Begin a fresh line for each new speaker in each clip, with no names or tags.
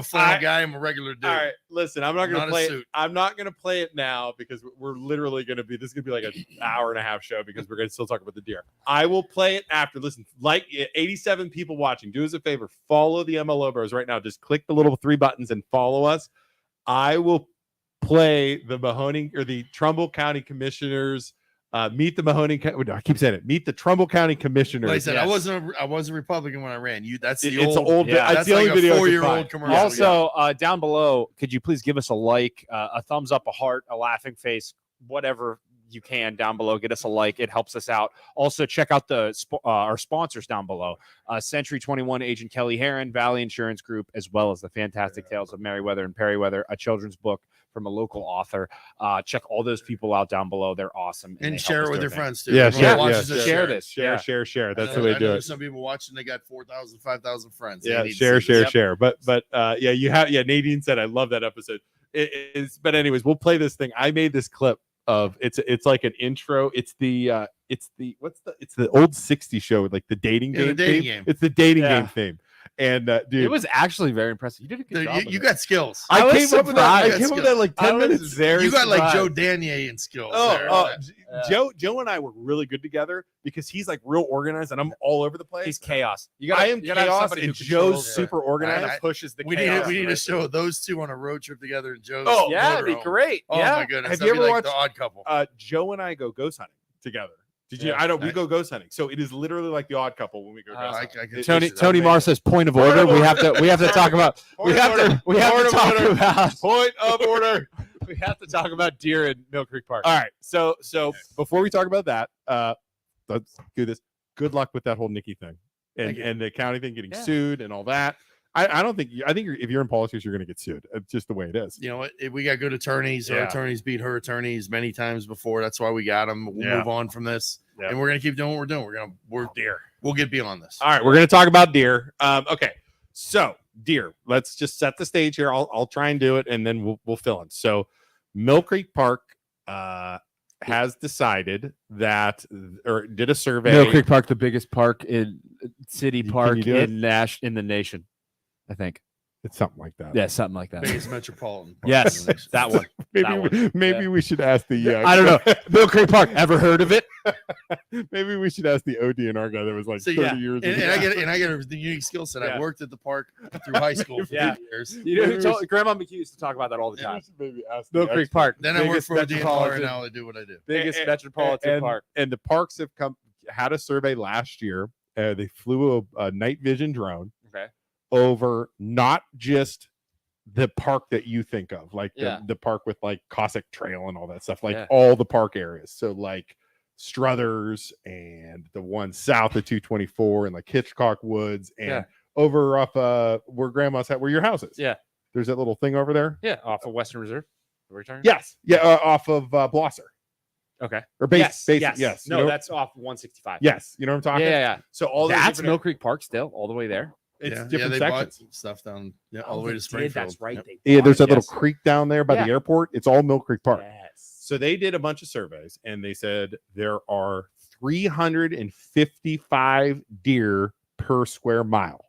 a flannel
I-
guy. I'm a regular dude.
All right, listen, I'm not
I'm
gonna
not a
play. It.
suit.
I'm not gonna play it now because we're literally gonna be. This is gonna be like an hour and a half show because we're gonna still talk about the deer. I will play it after. Listen, like 87 people watching, do us a favor, follow the MLO Bros right now. Just click the little three buttons and follow us. I will play the Mahoning or the Trumbull County Commissioners. Uh, meet the Mahoning. Co- no, I keep saying it. Meet the Trumbull County Commissioners.
Like I said, I
Yes.
wasn't. A, I was a Republican when I ran. You. That's the
It-
old.
it's an old.
yeah,
it's
that's
the
like
only
a
video I could
four-year-old
find.
commercial.
also, uh, down below, could you please give us a like, uh, a thumbs up, a heart, a laughing face, whatever you can down below. Get us a like; it helps us out. Also, check out the sp- uh, our sponsors down below: uh, Century Twenty One, Agent Kelly Heron, Valley Insurance Group, as well as the Fantastic Tales of Merriweather and Perryweather, a children's book from a local author. Uh, check all those people out down below; they're awesome.
and
they
share
help us
it with your
do our thing.
friends too.
Yeah,
Everyone
share-
that watches
yeah,
this,
share this.
Share,
Yeah.
share, share.
I
That's the
know-
way
I
to do
know
it.
Some people watching, they got 4,000, 5,000 friends. They
yeah
need to
share
see
share
this.
share but but uh yeah you have yeah nadine said i love that episode it is but anyways we'll play this thing i made this clip of it's it's like an intro it's the uh it's the what's the it's the old 60 show with like the dating
Yeah,
game
the dating
theme.
game.
it's the dating
Yeah.
game thame and uh dude
It was actually very impressive. You did a good
Dude,
job.
you,
of
you
it.
got skills.
i,
I was
came up with that i
surprised.
came up with that like
I
10
was
minutes very
you got like
surprised.
Joe Danier in skills.
Oh,
there.
oh, J-
Yeah.
Joe, Joe and I were really good together because he's like real organized, and I'm all over the place.
He's chaos. You
I am
you gotta have
chaos,
somebody who
and
controls
Joe's
it.
super organized.
I-
pushes the
we need
chaos
we need
right
to
there.
show those two on a road trip together in Joe's.
Oh,
Yeah, it'd be
motorhome.
great.
Oh
yeah.
my goodness,
Have
that'd
you
be
ever
like the Odd Couple?
uh, Joe and I go ghost hunting together. Did you?
Yeah.
I don't. We
Nice. Oh,
go ghost hunting, so it is literally like the odd couple when we go.
Uh,
Ghost hunting.
I- I can picture
Tony
that.
Tony
Amazing.
Mars says point of
Point
order.
of
we
order.
have to we have to talk about we
Point of
have to we have
Point
to
of
talk
order.
about
Point of order.
we have to talk about deer in Mill Creek Park.
All right. So so before we talk about that, uh, let's do this. Good luck with that whole Nikki thing, and
Thank you.
and the county thing getting
Yeah.
sued and all that. I, I don't think you, I think you're, if you're in politics, you're going to get sued. It's just the way it is.
You know what? If We got good attorneys. Our
Yeah.
attorneys beat her attorneys many times before. That's why we got them. We'll
Yeah.
move on from this,
Yeah.
and we're gonna keep doing what we're doing. We're gonna we're
Dear.
we'll get beyond this.
All right, we're going to talk about deer. Um, okay, so deer. Let's just set the stage here. I'll I'll try and do it, and then we'll we'll fill in. So, Mill Creek Park uh, has decided that or did a survey.
Mill Creek Park, the biggest park in city
You- can
park
you do it?
in Nash in the nation, I think.
It's something like that.
Yeah, something like that.
Biggest metropolitan. park in
yes,
the nation.
that one.
maybe
that
we- maybe
Yeah.
we should ask the. Uh,
I don't know. Mill Creek Park. Ever heard of it?
maybe we should ask the ODNR guy that was like
So,
thirty
yeah,
years.
And, and
ago.
I get and I get a the unique skill set.
Yeah.
I worked at the park through high school for
Yeah.
eight years.
You know,
Maybe
who
we
told, Grandma McHugh used to talk about that all the
Yeah.
time.
We should maybe ask
Mill
the
Creek
expert.
Park.
Then I work
biggest
for a DNR, and
metropolitan-
now I do what I do.
biggest
and-
metropolitan
and,
park.
And the parks have come had a survey last year. Uh, they flew a, a night vision drone
Okay.
over not just the park that you think of, like
Yeah.
the, the park with like Cossack Trail and all that stuff, like
Yeah.
all the park areas. So like Struthers and the one south of 224 and like Hitchcock Woods and
Yeah.
over off uh where grandma's at where your house is.
Yeah.
There's that little thing over there.
Yeah, off of Western Reserve. Are we talking?
Yes. Yeah. Uh, off of uh, Blosser
Okay.
or base.
yes.
base
yes.
yes. you
No,
know-
that's off 165.
Yes, you know what I'm
Yeah,
talking.
yeah, yeah.
So all those
that's
different-
Mill Creek Park still, all the way there.
it's
yeah,
different
yeah, they
sections.
bought stuff down yeah, all
Oh,
the way
they
to
did,
Springfield.
That's right.
Yep.
they
yeah,
bought
there's
it,
that little
yes.
creek down there by the
Yeah.
airport. It's all Mill Creek Park.
Yes.
So they did a bunch of surveys and they said there are 355 deer per square mile.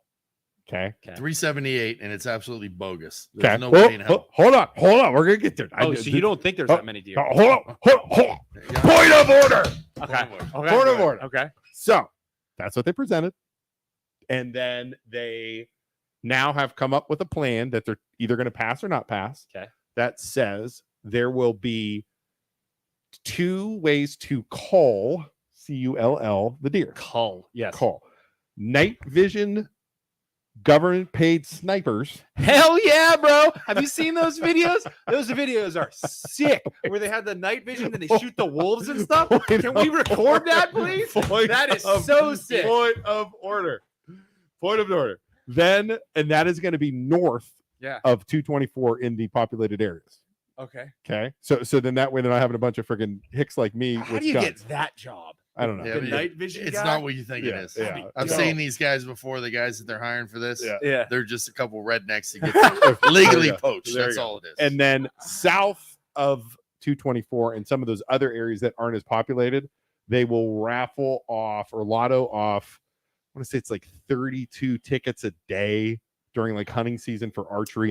Okay.
378, and it's absolutely bogus. There's
Okay.
no
Well,
way in
ho-
hell.
hold on. Hold on. We're gonna get there. I
Oh,
did-
so you don't think there's
oh,
that many deer?
uh, hold on. Hold on. Hold on.
Yeah.
Point of order.
Okay. Okay.
Point of order.
Okay.
So that's what they presented. And then they now have come up with a plan that they're either going to pass or not pass.
Okay.
That says there will be two ways to call C U L L the deer.
Cull. Yes.
Call. Night vision government paid snipers.
Hell yeah, bro. Have you seen those videos? Those videos are sick where they have the night vision and they shoot the wolves and stuff. Can we record that, please? That is
um,
so sick.
Point of order. Point of order. Then, and that is going to be north
Yeah.
of 224 in the populated areas.
Okay.
Okay. So, so then that way they're not having a bunch of freaking hicks like me.
How
with
do you
guns.
get that job?
I don't know.
Yeah,
the
but
night vision.
It's
guy?
not what you think
Yeah,
it is.
yeah.
I've
No.
seen these guys before, the guys that they're hiring for this.
Yeah.
Yeah.
They're just a couple rednecks that get legally
There you go.
poached.
There
That's
you go.
all it is.
And then south of 224 and some of those other areas that aren't as populated, they will raffle off or lotto off. I want to say it's like 32 tickets a day during like hunting season for archery